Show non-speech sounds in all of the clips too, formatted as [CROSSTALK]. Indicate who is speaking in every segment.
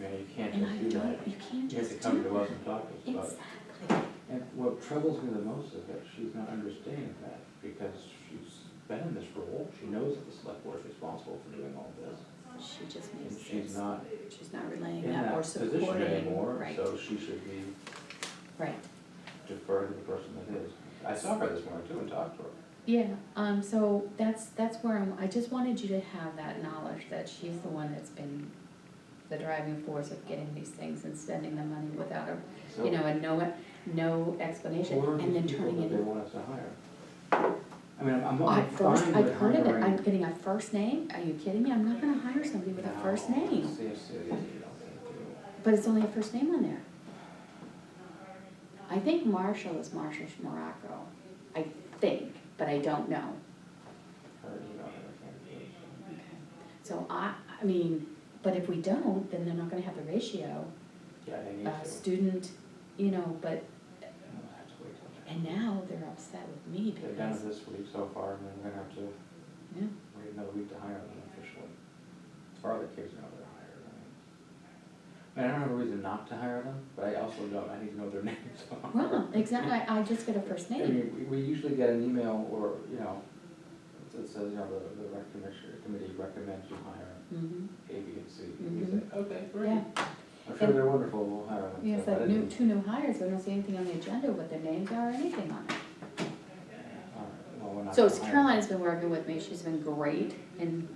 Speaker 1: Yeah, you can't
Speaker 2: And I
Speaker 1: just do that.
Speaker 2: don't, you can't
Speaker 1: You have to
Speaker 2: just
Speaker 1: come to
Speaker 2: do
Speaker 1: us and talk
Speaker 2: it.
Speaker 1: to us about it.
Speaker 2: Exactly.
Speaker 1: And what troubles me the most is that she's not understanding that, because she's been in this role, she knows that the select board is responsible for doing all this.
Speaker 2: She just
Speaker 1: And
Speaker 2: makes
Speaker 1: she's
Speaker 2: this,
Speaker 1: not
Speaker 2: she's not relaying
Speaker 1: in
Speaker 2: that
Speaker 1: that
Speaker 2: or
Speaker 1: position
Speaker 2: supporting,
Speaker 1: anymore,
Speaker 2: right,
Speaker 1: so she should be
Speaker 2: right.
Speaker 1: deferred to the person that is. I saw her this morning too and talked to her.
Speaker 2: Yeah, um, so that's, that's where I'm, I just wanted you to have that knowledge that she's the one that's been the driving force of getting these things and spending the money without a,
Speaker 1: So,
Speaker 2: you know, and no, no explanation,
Speaker 1: who are
Speaker 2: and then
Speaker 1: these people
Speaker 2: turning
Speaker 1: that
Speaker 2: it
Speaker 1: they
Speaker 2: in.
Speaker 1: want us to hire? I mean, I'm, I'm
Speaker 2: I
Speaker 1: I'm
Speaker 2: first,
Speaker 1: fine
Speaker 2: I've
Speaker 1: with
Speaker 2: heard of it, I'm
Speaker 1: hiring.
Speaker 2: getting a first name, are you kidding me, I'm not gonna hire somebody with a first
Speaker 1: No,
Speaker 2: name,
Speaker 1: seriously, you don't think you-
Speaker 2: but it's only a first name on there. I think Marshall is Marshall Morocco, I think, but I don't know.
Speaker 1: her email and her candidates.
Speaker 2: Okay. So I, I mean, but if we don't, then they're not gonna have the ratio,
Speaker 1: Yeah, they need to.
Speaker 2: uh, student, you know, but,
Speaker 1: We'll have to wait till
Speaker 2: and now they're upset with me
Speaker 1: They're done it
Speaker 2: because,
Speaker 1: this week so far, and then we're gonna have to
Speaker 2: yeah,
Speaker 1: wait another week to hire them officially. Or the kids know they're hired, I mean. I mean, I don't have a reason not to hire them, but I also don't, I need to know their [LAUGHS] names.
Speaker 2: well, exactly, I I just get a first
Speaker 1: I
Speaker 2: name,
Speaker 1: mean, we, we usually get an email or, you know, that says, you know, the, the rec commissioner, committee recommends you hire
Speaker 2: hmm
Speaker 1: A, B, and C. And you say, okay, great.
Speaker 2: Mm-hmm. yeah.
Speaker 1: I'm sure they're wonderful, we'll hire them.
Speaker 2: Yeah, it's
Speaker 1: So I
Speaker 2: like new,
Speaker 1: didn't-
Speaker 2: two new hires, we don't see anything on the agenda, what their names are or anything on it.
Speaker 1: All right, well, we're not
Speaker 2: So
Speaker 1: gonna hire them.
Speaker 2: Caroline's been working with me, she's been great and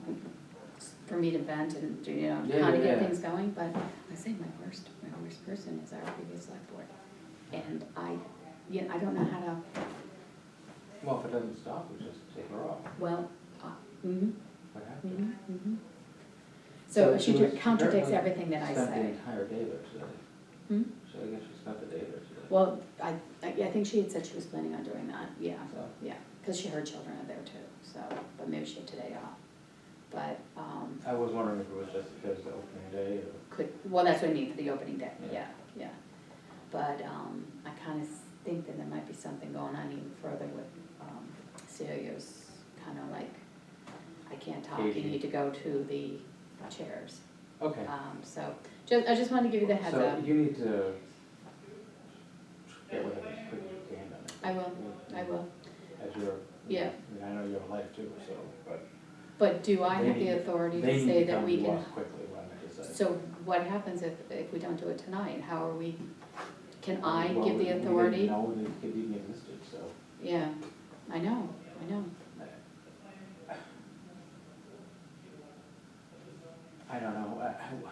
Speaker 2: for me to vent and, do, you know,
Speaker 1: Yeah,
Speaker 2: how to
Speaker 1: yeah,
Speaker 2: get
Speaker 1: yeah.
Speaker 2: things going, but I say my worst, my worst person is our previous select board. And I, you know, I don't know how to,
Speaker 1: Well, if it doesn't stop, we just take her off.
Speaker 2: well, uh, mhm,
Speaker 1: What happens?
Speaker 2: mhm, mhm. So she
Speaker 1: was-
Speaker 2: ju- contradicts
Speaker 1: apparently
Speaker 2: everything that I
Speaker 1: Spent the
Speaker 2: say.
Speaker 1: entire day there today,
Speaker 2: Hmm?
Speaker 1: so I guess she spent the day there today.
Speaker 2: Well, I, I I think she had said she was planning on doing that, yeah.
Speaker 1: So,
Speaker 2: Yeah, because she, her children are there too, so, but maybe she had today off. But, um,
Speaker 1: I was wondering if it was just because of the opening day or,
Speaker 2: could, well, that's what I mean for the opening day, yeah,
Speaker 1: Yeah.
Speaker 2: yeah. But, um, I kind of think that there might be something going on even further with, um, Celia's kind of like, I can't talk, you
Speaker 1: Aging.
Speaker 2: need to go to the chairs.
Speaker 1: okay.
Speaker 2: Um, so, just, I just wanted to give you the heads up.
Speaker 1: So you need to get with her as quick as you can on it.
Speaker 2: I will, I will,
Speaker 1: As your.
Speaker 2: Yeah.
Speaker 1: I mean, I know you have a life too, so, but
Speaker 2: but do I
Speaker 1: They
Speaker 2: have the
Speaker 1: need-
Speaker 2: authority
Speaker 1: they
Speaker 2: to
Speaker 1: need
Speaker 2: say
Speaker 1: to
Speaker 2: that
Speaker 1: come
Speaker 2: we can?
Speaker 1: to us quickly when they decide.
Speaker 2: So what happens if, if we don't do it tonight? How are we, can I give
Speaker 1: Well, we-
Speaker 2: the
Speaker 1: We didn't
Speaker 2: authority?
Speaker 1: know that it even existed, so.
Speaker 2: Yeah, I know, I know.
Speaker 1: I don't know, uh, I,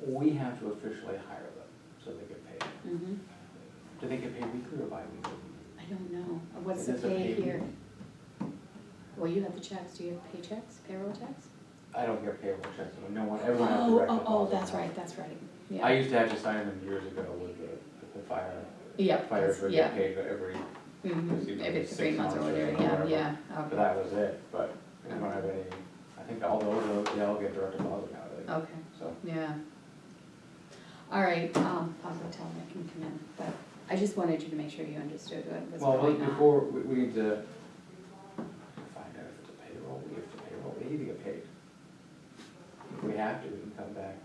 Speaker 1: I- we have to officially hire them, so they get paid.
Speaker 2: hmm
Speaker 1: Do they get paid weekly or bi-weekly?
Speaker 2: I don't know. What's the
Speaker 1: It is a
Speaker 2: pay
Speaker 1: pay-
Speaker 2: here? Well, you have the checks. Do you have paychecks, payroll checks?
Speaker 1: I don't get payroll checks, I mean, no one, everyone has
Speaker 2: Oh,
Speaker 1: direct
Speaker 2: oh,
Speaker 1: deposit.
Speaker 2: oh, that's right, that's right.
Speaker 1: I
Speaker 2: Yeah,
Speaker 1: used to have to sign them years ago with the, with the fire,
Speaker 2: yep,
Speaker 1: fire,
Speaker 2: that's-
Speaker 1: they get
Speaker 2: yeah.
Speaker 1: paid every,
Speaker 2: Mhm.
Speaker 1: you know,
Speaker 2: Every
Speaker 1: six
Speaker 2: three months or
Speaker 1: months or
Speaker 2: whatever, yeah,
Speaker 1: whatever.
Speaker 2: yeah,
Speaker 1: but
Speaker 2: okay,
Speaker 1: that was it, but we don't have any, I think all those, they all get direct deposit now, they,
Speaker 2: okay,
Speaker 1: so.
Speaker 2: yeah. All right, um, I'll go tell them I can come in, but I just wanted you to make sure you understood what was
Speaker 1: Well,
Speaker 2: going
Speaker 1: wait,
Speaker 2: on.
Speaker 1: before, we, we need to find out if it's a payroll, we have to payroll, they need to get paid. If we have to, we can come back,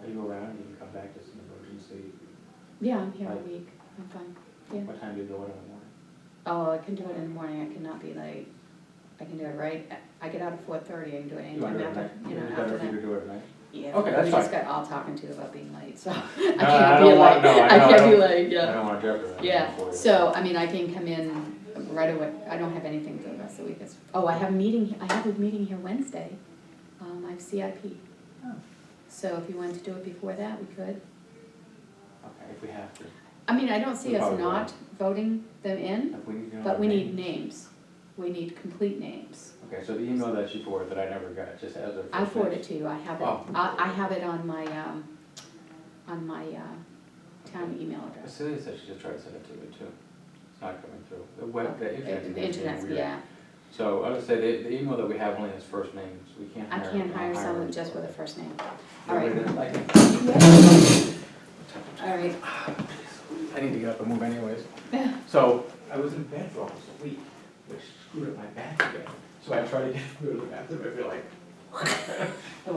Speaker 1: are you around, you can come back, it's an emergency,
Speaker 2: Yeah, I'm here all
Speaker 1: Right.
Speaker 2: week, I'm fine, yeah.
Speaker 1: what time do you go in in the morning?
Speaker 2: Oh, I can do it in the morning, I cannot be late, I can do it right, I get out at four thirty, I can do it
Speaker 1: You wanna
Speaker 2: anytime
Speaker 1: do it at
Speaker 2: after,
Speaker 1: night?
Speaker 2: you
Speaker 1: It's
Speaker 2: know,
Speaker 1: better
Speaker 2: after
Speaker 1: if you
Speaker 2: that.
Speaker 1: could do it at night.
Speaker 2: Yeah,
Speaker 1: Okay, that's
Speaker 2: We just
Speaker 1: fine.
Speaker 2: got all talking to about being late, so [LAUGHS]
Speaker 1: No,
Speaker 2: I
Speaker 1: no, I
Speaker 2: can't be
Speaker 1: don't
Speaker 2: late,
Speaker 1: want-
Speaker 2: [LAUGHS]
Speaker 1: no, I
Speaker 2: I
Speaker 1: know,
Speaker 2: can't be
Speaker 1: don't-
Speaker 2: late,
Speaker 1: I
Speaker 2: yeah.
Speaker 1: don't wanna jeopardize. it
Speaker 2: Yeah,
Speaker 1: for you.
Speaker 2: so, I mean, I can come in right away, I don't have anything for the rest of the week, It's- oh, I have a meeting, I have a meeting here Wednesday, um, I have CIP.
Speaker 1: Oh.
Speaker 2: So if you wanted to do it before that, we could,
Speaker 1: Okay, if we have to,
Speaker 2: I mean, I don't see
Speaker 1: We
Speaker 2: us
Speaker 1: probably will.
Speaker 2: not voting them in,
Speaker 1: if we need to know.
Speaker 2: But
Speaker 1: their
Speaker 2: we need
Speaker 1: name.
Speaker 2: names, we need complete names.
Speaker 1: Okay, so the email that she forwarded that I never got, just as a.
Speaker 2: I forward it to you, I have it,
Speaker 1: Oh.
Speaker 2: I, I have it on my, um, on my, uh, town email address.
Speaker 1: Celia said she just tried to send it to me too, it's not coming through, the web, the
Speaker 2: Uh,
Speaker 1: internet's
Speaker 2: The
Speaker 1: being
Speaker 2: internet's,
Speaker 1: weird.
Speaker 2: yeah,
Speaker 1: So I would say the, the email that we have only has first names, we can't
Speaker 2: I
Speaker 1: hire.
Speaker 2: can't
Speaker 1: not
Speaker 2: hire someone
Speaker 1: them.
Speaker 2: just with a first name. all
Speaker 1: Nobody
Speaker 2: right.
Speaker 1: doesn't like it.
Speaker 2: All right,
Speaker 1: I need to get up and move anyways. So I was in bed for almost a week, which screwed up my back again. So I tried to get, go to the bathroom, I'd be like, [LAUGHS]